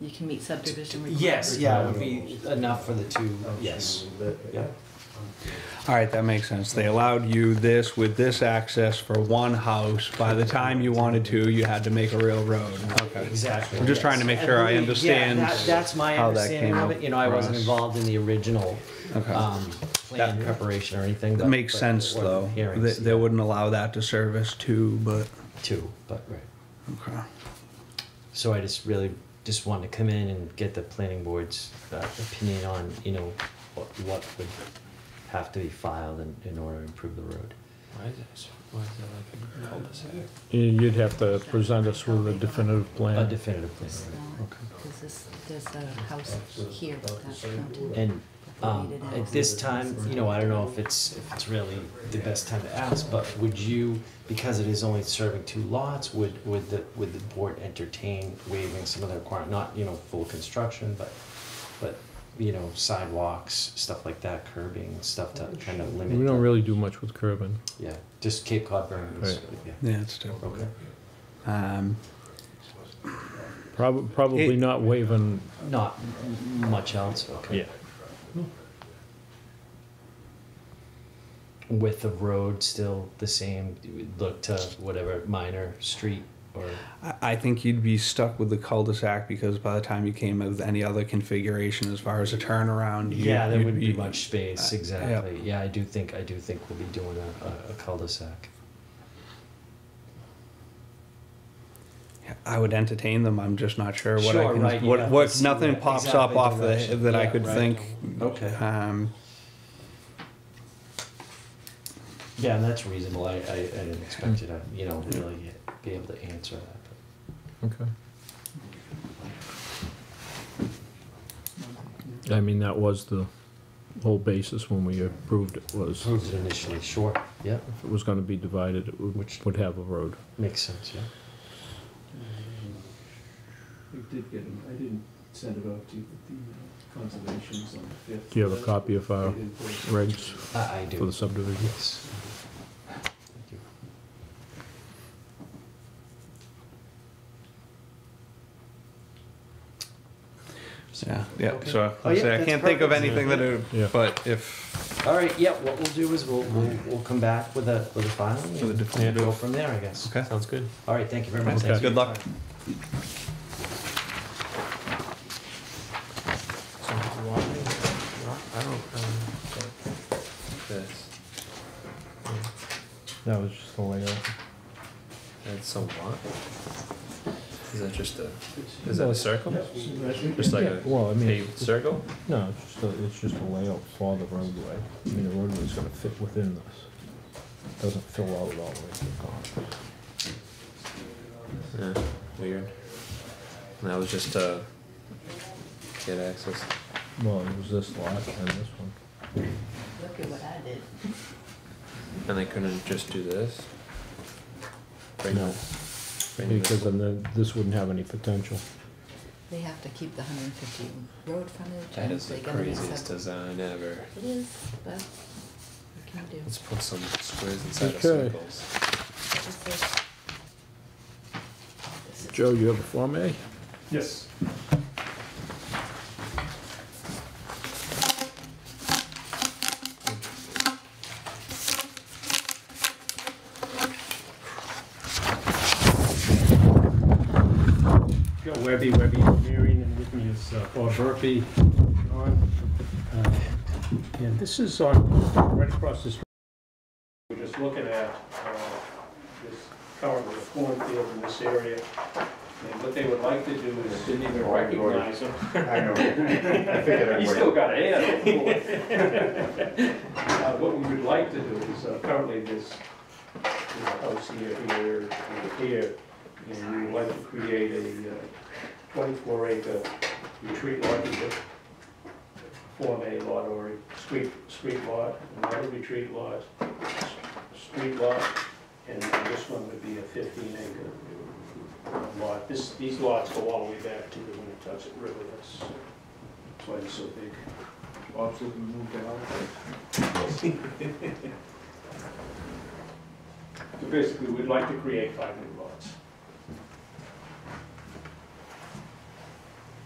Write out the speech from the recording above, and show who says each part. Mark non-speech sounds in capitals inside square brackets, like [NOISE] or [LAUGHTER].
Speaker 1: you can meet subdivision requirements.
Speaker 2: Yes, yeah, it would be enough for the two,
Speaker 3: Oh,
Speaker 2: yes. Yeah.
Speaker 4: All right, that makes sense. They allowed you this with this access for one house. By the time you wanted to, you had to make a real road. Okay.
Speaker 2: Exactly.
Speaker 4: I'm just trying to make
Speaker 2: yes.
Speaker 4: sure
Speaker 2: And
Speaker 4: I
Speaker 2: we- yeah,
Speaker 4: understand
Speaker 2: that- That's my
Speaker 4: how that
Speaker 2: understanding
Speaker 4: came
Speaker 2: of it, you know, I wasn't
Speaker 4: across.
Speaker 2: involved in the original,
Speaker 4: Okay.
Speaker 2: um, plan
Speaker 4: That-
Speaker 2: preparation or anything.
Speaker 4: That
Speaker 2: but-
Speaker 4: makes
Speaker 2: but
Speaker 4: sense,
Speaker 2: or the
Speaker 4: though. They,
Speaker 2: Hearings,
Speaker 4: they wouldn't allow that to service two, but,
Speaker 2: too, but, right.
Speaker 4: okay.
Speaker 2: So I just really just wanted to come in and get the planning board's uh, opinion on, you know, what, what would have to be filed in, in order to improve the road.
Speaker 3: Why is it, why is it like a cul-de-sac?
Speaker 5: You'd have to present us with a definitive
Speaker 2: A
Speaker 5: plan.
Speaker 2: definitive plan.
Speaker 1: It's not, Cause this, there's a house here that's counted.
Speaker 2: And um, at this time, you know, I don't know if it's, if it's really the best time to ask, but would you, because it is only serving two lots, would, would the, would the board entertain waiving some of the requirement, not, you know, full construction, but, but, you know, sidewalks, stuff like that, curbing, stuff to kind of limit.
Speaker 5: We don't
Speaker 2: the-
Speaker 5: really do much with curbing.
Speaker 2: Yeah, just Cape Cod Burns.
Speaker 5: Right.
Speaker 2: Yeah.
Speaker 4: Yeah, it's two.
Speaker 2: Okay.
Speaker 4: Um,
Speaker 5: Prob- Probably
Speaker 4: It-
Speaker 5: not waiving,
Speaker 2: Not m- much else. Okay.
Speaker 5: yeah.
Speaker 2: With the road still the same, you would look to whatever minor street or
Speaker 4: I, I think you'd be stuck with the cul-de-sac because by the time you came up with any other configuration as far as a turnaround, you-
Speaker 2: yeah, there
Speaker 4: you'd
Speaker 2: wouldn't be much space.
Speaker 4: uh,
Speaker 2: Exactly. Yeah. I do think I do think we'll be doing a, a, a cul-de-sac.
Speaker 4: I would entertain them. I'm just not sure what I
Speaker 2: Sure,
Speaker 4: can.
Speaker 2: right, you
Speaker 4: what
Speaker 2: have to
Speaker 4: what
Speaker 2: see
Speaker 4: nothing
Speaker 2: that
Speaker 4: pops
Speaker 2: exactly
Speaker 4: up off the
Speaker 2: direction.
Speaker 4: that I
Speaker 2: Yeah,
Speaker 4: could
Speaker 2: right.
Speaker 4: think.
Speaker 2: Okay.
Speaker 4: Um,
Speaker 2: Yeah, and that's reasonable. I, I, I didn't expect you to you know really be able to answer that. But.
Speaker 5: Okay. I mean, that was the whole basis when we approved it, was
Speaker 2: Approved it initially. Sure. Yeah,
Speaker 5: if it was gonna be divided, it would,
Speaker 2: Which-
Speaker 5: would have a road.
Speaker 2: makes sense. Yeah.
Speaker 3: I did get, an- I didn't send it out to you, but the uh, conservation's on the fifth.
Speaker 5: Do you have a copy of
Speaker 3: They
Speaker 5: our
Speaker 3: didn't put it-
Speaker 5: regs
Speaker 2: I, I do.
Speaker 5: for the subdivision?
Speaker 2: Yes. Thank you.
Speaker 4: yeah, yeah.
Speaker 2: Okay.
Speaker 4: So
Speaker 2: Oh,
Speaker 4: I
Speaker 2: yeah,
Speaker 4: say I
Speaker 2: that's
Speaker 4: can't think of
Speaker 2: perfect.
Speaker 4: anything that. Would,
Speaker 5: Yeah.
Speaker 4: But if
Speaker 2: All right, yeah, what we'll do is we'll, we'll, we'll come back with a, with a filing.
Speaker 4: For the
Speaker 2: and
Speaker 4: definitive.
Speaker 2: Go from there, I guess.
Speaker 4: okay,
Speaker 3: Sounds good.
Speaker 2: All right, thank you very much.
Speaker 5: Okay.
Speaker 2: Thanks for
Speaker 4: Good
Speaker 2: your
Speaker 4: luck.
Speaker 2: time.
Speaker 3: So do you want me? I don't, um, this,
Speaker 5: That was just the layout.
Speaker 3: that's a lot. Is that just a, is that a circle? Just like
Speaker 5: Yeah,
Speaker 3: a
Speaker 5: well, I mean,
Speaker 3: paved circle?
Speaker 5: no, it's just, a- it's just a layout for the roadway. I mean, the roadway's gonna fit within this. Doesn't fill out all the way to the car.
Speaker 3: Yeah, weird. And that was just to get access.
Speaker 5: Well, it was this lot and this one.
Speaker 1: Look at what I did.
Speaker 3: And they couldn't just do this? Bring
Speaker 5: No.
Speaker 3: the- bring this-
Speaker 5: Because then the- this wouldn't have any potential.
Speaker 1: They have to keep the hundred and fifty road frontage.
Speaker 3: That
Speaker 1: and
Speaker 3: is the
Speaker 1: they're gonna be
Speaker 3: craziest
Speaker 1: sub-
Speaker 3: design ever.
Speaker 1: It is, but what can you do?
Speaker 3: Let's put some squares inside of
Speaker 5: Okay.
Speaker 3: circles.
Speaker 1: This is- this is-
Speaker 5: Joe, you have a Form A?
Speaker 6: Yes. Joe Webby, Webby Engineering, and with me is uh, Bob Murphy. John. Uh, And this is on, right across this, we're just looking at uh, this currently a cornfield in this area. And what they would like to do is, didn't even recognize him.
Speaker 7: I know. I figured I
Speaker 6: [LAUGHS] He's
Speaker 7: would.
Speaker 6: still got a hand, of
Speaker 7: [LAUGHS]
Speaker 6: course. Uh, What we would like to do is, uh, currently this, this house here, here, and here, and we would like to create a uh, twenty-four acre retreat lot, either Form A lot or a street, street lot, another retreat lot, s- street lot, and this one would be a fifteen acre lot. This, these lots go all the way back to the Winnetuxet River, that's why it's so big.
Speaker 7: Bob's looking to move down.
Speaker 6: [LAUGHS] So basically, we'd like to create five new lots.